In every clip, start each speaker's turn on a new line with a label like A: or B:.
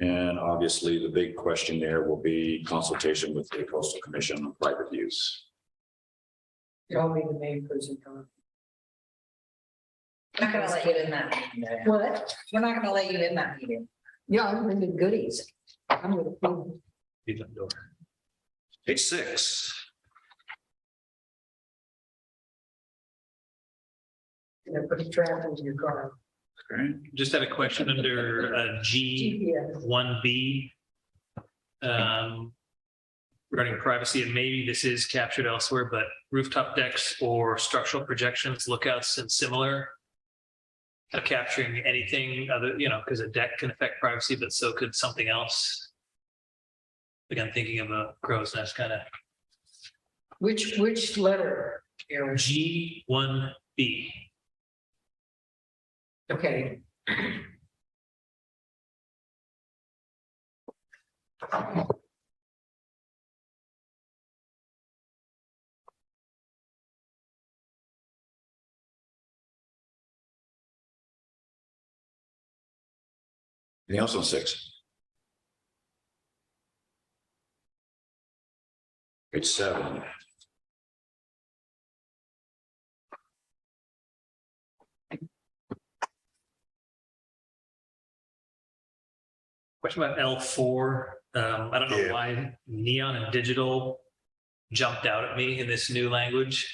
A: And obviously, the big question there will be consultation with the coastal commission on private use.
B: I'll be the main person coming.
C: Not gonna let you in that meeting.
B: What?
C: We're not gonna let you in that meeting.
B: Yeah, I'm bringing the goodies. I'm with the food.
A: Page six.
B: You know, put a trap into your car.
A: Okay.
D: Just had a question under uh, G
B: GPS.
D: one B. Regarding privacy, and maybe this is captured elsewhere, but rooftop decks or structural projections, lookouts and similar. Are capturing anything other, you know, because a deck can affect privacy, but so could something else. Again, thinking of a crow's nest kind of
B: Which, which letter? Aaron?
D: G one B.
B: Okay.
A: Anything else on six? Page seven.
D: Question about L four, um, I don't
A: Yeah.
D: know why neon and digital jumped out at me in this new language.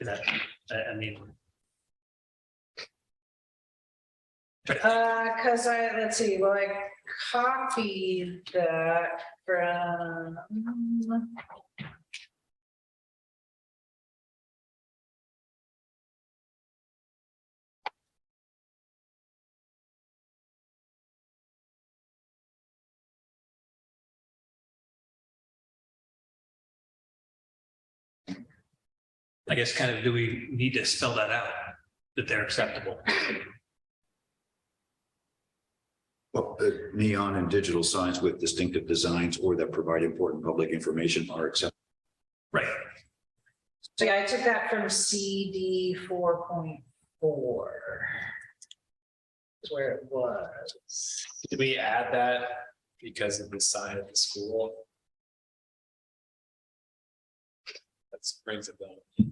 D: Is that, I, I mean.
C: Uh, cause I, let's see, well, I copied that from.
B: mm,
D: I guess kind of, do we need to spell that out, that they're acceptable?
A: Well, uh, neon and digital signs with distinctive designs or that provide important public information are accepted.
D: Right,
C: So yeah, I took that from CD four point four. Is where it was.
E: Did we add that because of the sign of the school? That brings it down.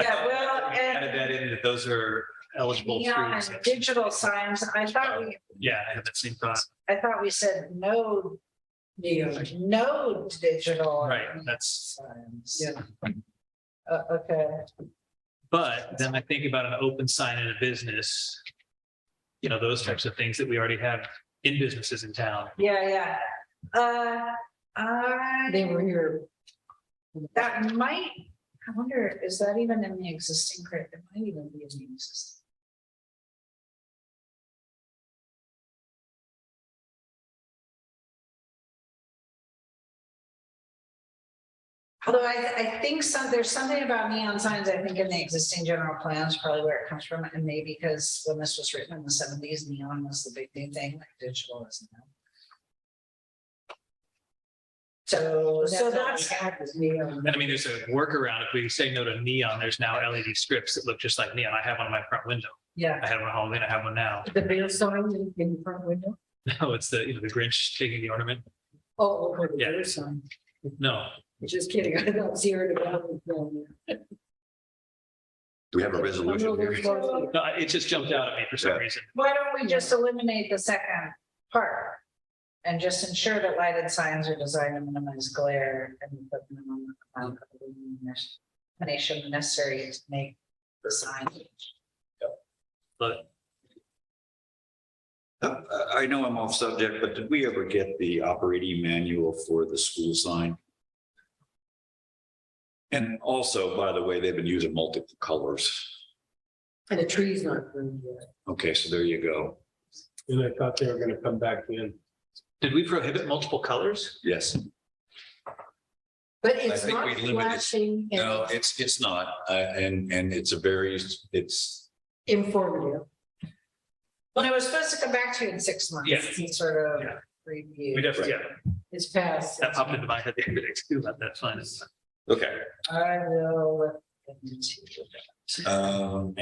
C: Yeah, well,
D: We
C: and
D: added that in, that those are eligible.
C: neon
D: through
C: and digital signs, I thought we,
D: Yeah, I had that same thought,
C: I thought we said no,
B: Yeah.
C: no digital.
D: right, that's.
C: signs.
B: Yeah.
C: Uh, okay,
D: But then I think about an open sign in a business. You know, those types of things that we already have in businesses in town.
C: yeah, yeah. Uh, I.
B: They were here.
C: That might, I wonder, is that even in the existing crit? It might even be in the existing. Although I, I think some, there's something about neon signs, I think in the existing general plans, probably where it comes from, and maybe because when this was written in the seventies, neon was the big new thing, like digital is now. So, so that's.
D: And I mean, there's a workaround. If we say no to neon, there's now LED strips that look just like neon. I have one in my front window.
C: Yeah,
D: I had one on Halloween. I have one now.
B: The bill sign in the front window.
D: No, it's the, you know, the Grinch taking the ornament.
B: Oh, over the
D: Yeah.
B: bill sign.
D: No,
B: Just kidding. I got zero to one.
A: Do we have a resolution here?
D: no, it just jumped out at me for some
A: Yeah.
D: reason.
C: why don't we just eliminate the second part? And just ensure that lighted signs are designed to minimize glare and put minimum amount of illumination necessary to make the sign.
D: But
A: Uh, I know I'm off subject, but did we ever get the operating manual for the school sign? And also, by the way, they've been using multiple colors.
B: And the tree's not pruned yet.
A: Okay, so there you go.
F: And I thought they were gonna come back in.
D: did we prohibit multiple colors?
A: Yes.
B: But it's
A: think
B: not
A: we limit it.
B: flashing
A: No,
B: and
A: it's, it's not. Uh, and, and it's a very, it's,
B: informative.
C: Well, it was supposed to come back to you in six months.
D: Yeah.
C: some Sort of
D: Yeah. We
C: review.
D: definitely, yeah,
B: It's past.
D: that popped into my head the other day too, but that's fine.
A: okay.
C: I will. look into that.
A: Um,